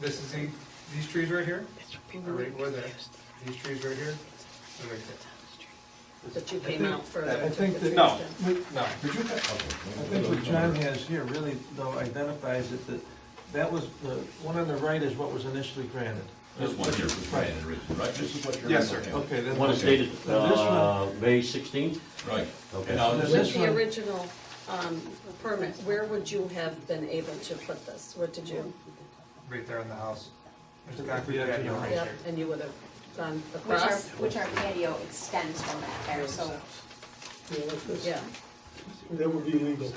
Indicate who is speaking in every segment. Speaker 1: this is the, these trees right here, are right where that, these trees right here, and right
Speaker 2: But you came out further.
Speaker 3: I
Speaker 2: and took
Speaker 3: think
Speaker 2: the
Speaker 3: that-
Speaker 2: trees down.
Speaker 3: What-
Speaker 1: there. No,
Speaker 4: Did you have?
Speaker 3: I think what John has here really, though, identifies it, that that was, the one on the right is what was initially granted.
Speaker 4: There's one here for Brian and Richard, right? This is what you're.
Speaker 1: Yes, sir.
Speaker 3: Okay, then.
Speaker 5: One is dated,
Speaker 3: Now, this one-
Speaker 5: uh, May sixteenth?
Speaker 4: Right.
Speaker 5: Okay.
Speaker 4: And now this
Speaker 3: This
Speaker 2: With
Speaker 4: is,
Speaker 2: the
Speaker 3: one-
Speaker 2: original um, permit, where would you have been able to put this? What did you,
Speaker 1: right there in the house. There's a concrete patio right
Speaker 2: yep,
Speaker 1: there.
Speaker 2: and you would have gone
Speaker 6: Which our,
Speaker 2: across?
Speaker 6: which our patio extends from that there, so
Speaker 7: Yeah, like this.
Speaker 2: Yeah,
Speaker 7: That would be legal.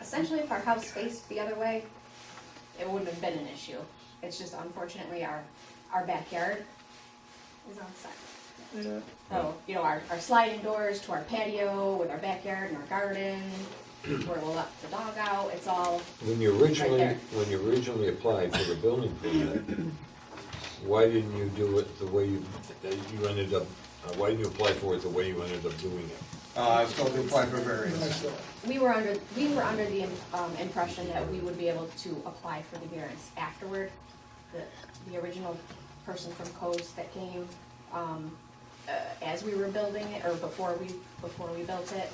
Speaker 6: essentially if our house faced the other way, it wouldn't have been an issue. It's just unfortunately our, our backyard is on side. So, you know, our, our sliding doors to our patio with our backyard and our garden, where we'll let the dog out, it's all,
Speaker 8: When you originally,
Speaker 6: there.
Speaker 8: when you originally applied for the building permit, why didn't you do it the way you, that you ended up, uh, why didn't you apply for it the way you ended up doing it?
Speaker 1: Uh, I still do apply for variance.
Speaker 6: we were under, we were under the um, impression that we would be able to apply for the variance afterward. The, the original person from Coast that came, um, uh, as we were building it, or before we, before we built it.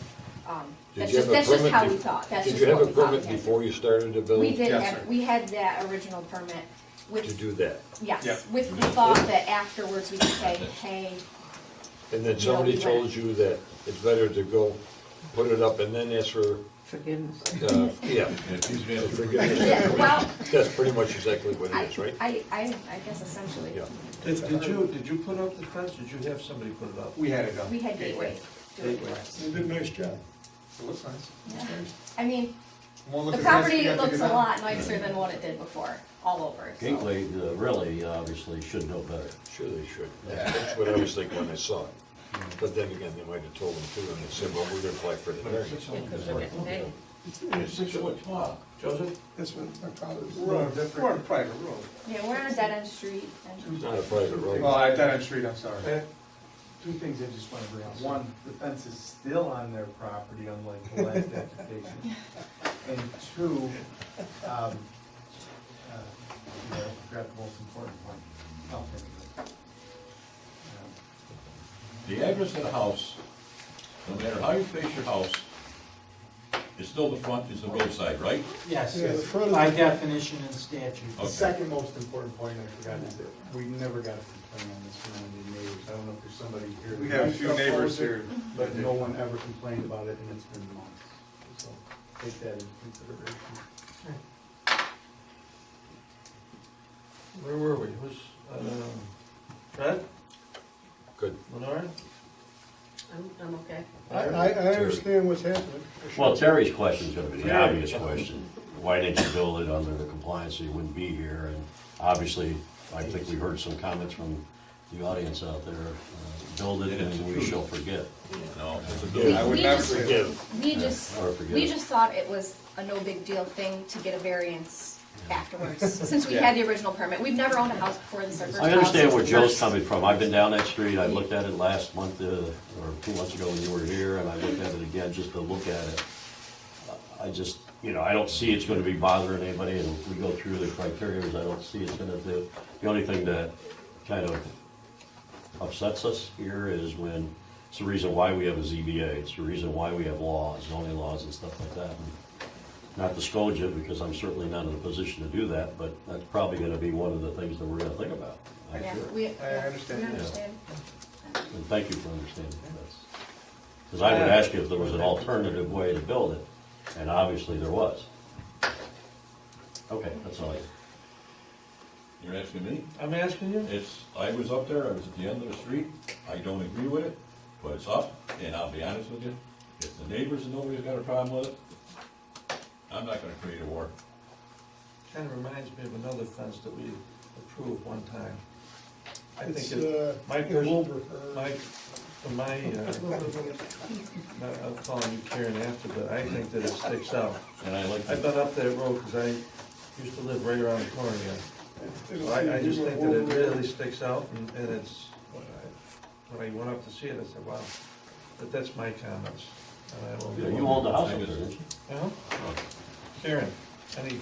Speaker 6: um,
Speaker 8: Did
Speaker 6: That's
Speaker 8: you
Speaker 6: just,
Speaker 8: have a
Speaker 6: that's just
Speaker 8: permit
Speaker 6: how we
Speaker 8: bef-
Speaker 6: thought, that's
Speaker 8: Did
Speaker 6: just
Speaker 8: you have
Speaker 6: what
Speaker 8: a
Speaker 6: we thought.
Speaker 8: permit
Speaker 6: had.
Speaker 8: before you started the
Speaker 6: We
Speaker 8: building
Speaker 6: did
Speaker 1: Yes,
Speaker 6: have,
Speaker 1: sir.
Speaker 6: we had that original permit
Speaker 8: to
Speaker 6: with,
Speaker 8: do that?
Speaker 1: Yeah.
Speaker 6: yes, with the thought that afterwards we could say, hey,
Speaker 8: And then
Speaker 6: No,
Speaker 8: somebody
Speaker 6: we
Speaker 8: told
Speaker 6: went.
Speaker 8: you that it's better to go put it up and then ask for,
Speaker 9: Forgiveness.
Speaker 8: uh, yeah.
Speaker 4: it seems to me
Speaker 8: So
Speaker 4: after-
Speaker 8: forgive us.
Speaker 6: Yeah, well-
Speaker 8: That's pretty much exactly what
Speaker 6: I,
Speaker 8: it is, right?
Speaker 6: I, I, I guess essentially.
Speaker 8: Yeah.
Speaker 3: Did did you, did you put up the fence, did you have somebody put it up?
Speaker 1: We had it done.
Speaker 6: We had Gateway do it for us.
Speaker 7: They did a nice job.
Speaker 1: It looks nice.
Speaker 6: I mean,
Speaker 1: Won't look
Speaker 6: the
Speaker 1: as nice if
Speaker 6: property
Speaker 1: you have to
Speaker 6: looks
Speaker 1: get out.
Speaker 6: a lot nicer than what it did before, all over, so.
Speaker 5: Gateway, uh, really, obviously, should know better.
Speaker 8: Sure they should. That's what I was thinking when I saw it. But then again, they might have told them too, and they said, well, we're gonna apply for the variance.
Speaker 2: because they're getting paid.
Speaker 3: It's six foot tall. Joseph?
Speaker 7: That's what my father's.
Speaker 1: We're on a different- we're on a private road.
Speaker 6: Yeah, we're on a dead end street
Speaker 8: It's
Speaker 6: and,
Speaker 8: Not a private road.
Speaker 1: Well, I, that on street, I'm sorry.
Speaker 10: Two things I just want to bring up. One, the fence is still on their property unlike the last application. And two, um, uh, you know, I forgot the most important one. I'll think of it. Um,
Speaker 4: The address of the house, no matter how you face your house, it's still the front, is the roadside, right?
Speaker 10: Yes,
Speaker 7: Yeah, the
Speaker 10: yes,
Speaker 7: front of
Speaker 10: by
Speaker 7: the-
Speaker 10: definition and statute.
Speaker 4: Okay.
Speaker 10: The second most important point I forgot is that we never got a complaint on this from any neighbors. I don't know if there's somebody here.
Speaker 1: We have a few
Speaker 10: that
Speaker 1: neighbors
Speaker 10: opposed it,
Speaker 1: here.
Speaker 3: Mm-hmm.
Speaker 10: But no one ever complained about it and it's been months. So take that into consideration.
Speaker 3: Where were we? Was, um, Fred?
Speaker 8: Good.
Speaker 3: Lenore?
Speaker 2: I'm, I'm okay.
Speaker 7: I, I, I understand what's happening.
Speaker 5: Well, Terry's question's gonna be the obvious question. Why didn't you build it under the compliance, so you wouldn't be here? And obviously, I think we heard some comments from the audience out there, uh, build it and we shall forget.
Speaker 4: No, it's a
Speaker 6: we,
Speaker 4: building.
Speaker 1: would
Speaker 6: we
Speaker 1: never
Speaker 6: just,
Speaker 8: Forgive.
Speaker 6: we just,
Speaker 5: or forget
Speaker 6: we
Speaker 5: it.
Speaker 6: just thought it was a no big deal thing to get a variance afterwards, since we had the original permit. We've never owned a house before this, our first house.
Speaker 5: I understand where
Speaker 6: It's
Speaker 5: Joe's
Speaker 6: first.
Speaker 5: coming from. I've been down that street, I looked at it last month, uh, or two months ago when you were here, and I looked at it again just to look at it. Uh, I just, you know, I don't see it's gonna be bothering anybody, and if we go through the criteria, I don't see it's gonna do. The only thing that kind of upsets us here is when, it's the reason why we have a ZBA, it's the reason why we have laws, zoning laws and stuff like that. Not to scold you, because I'm certainly not in a position to do that, but that's probably gonna be one of the things that we're gonna think about, I'm
Speaker 6: Yeah,
Speaker 5: sure.
Speaker 6: we,
Speaker 1: I understand.
Speaker 6: we
Speaker 1: Yeah.
Speaker 6: understand.
Speaker 5: And thank you for understanding that. Because I would ask you if there was an alternative way to build it, and obviously there was. Okay, that's all I,
Speaker 4: You're asking me?
Speaker 3: I'm asking you?
Speaker 4: It's, I was up there, I was at the end of the street, I don't agree with it, but it's up, and I'll be honest with you, if the neighbors and nobody's got a problem with it, I'm not gonna create a war.
Speaker 3: Kind of reminds me of another fence that we approved one time. I
Speaker 7: It's,
Speaker 3: think it,
Speaker 7: uh,
Speaker 3: my
Speaker 7: in
Speaker 3: pers-
Speaker 7: Wilbur.
Speaker 1: uh,
Speaker 3: my, my, uh, I- I'll call you Karen after, but I think that it sticks out.
Speaker 4: And I like,
Speaker 3: I've
Speaker 4: to-
Speaker 3: been up that road because I used to live right around the corner here. So I, I just think that it really sticks out and, and it's, when I- when I went up to see it, I said, wow. But that's my comments. and I will-
Speaker 5: you own the house up there, didn't you?
Speaker 3: Uh-huh. Karen, any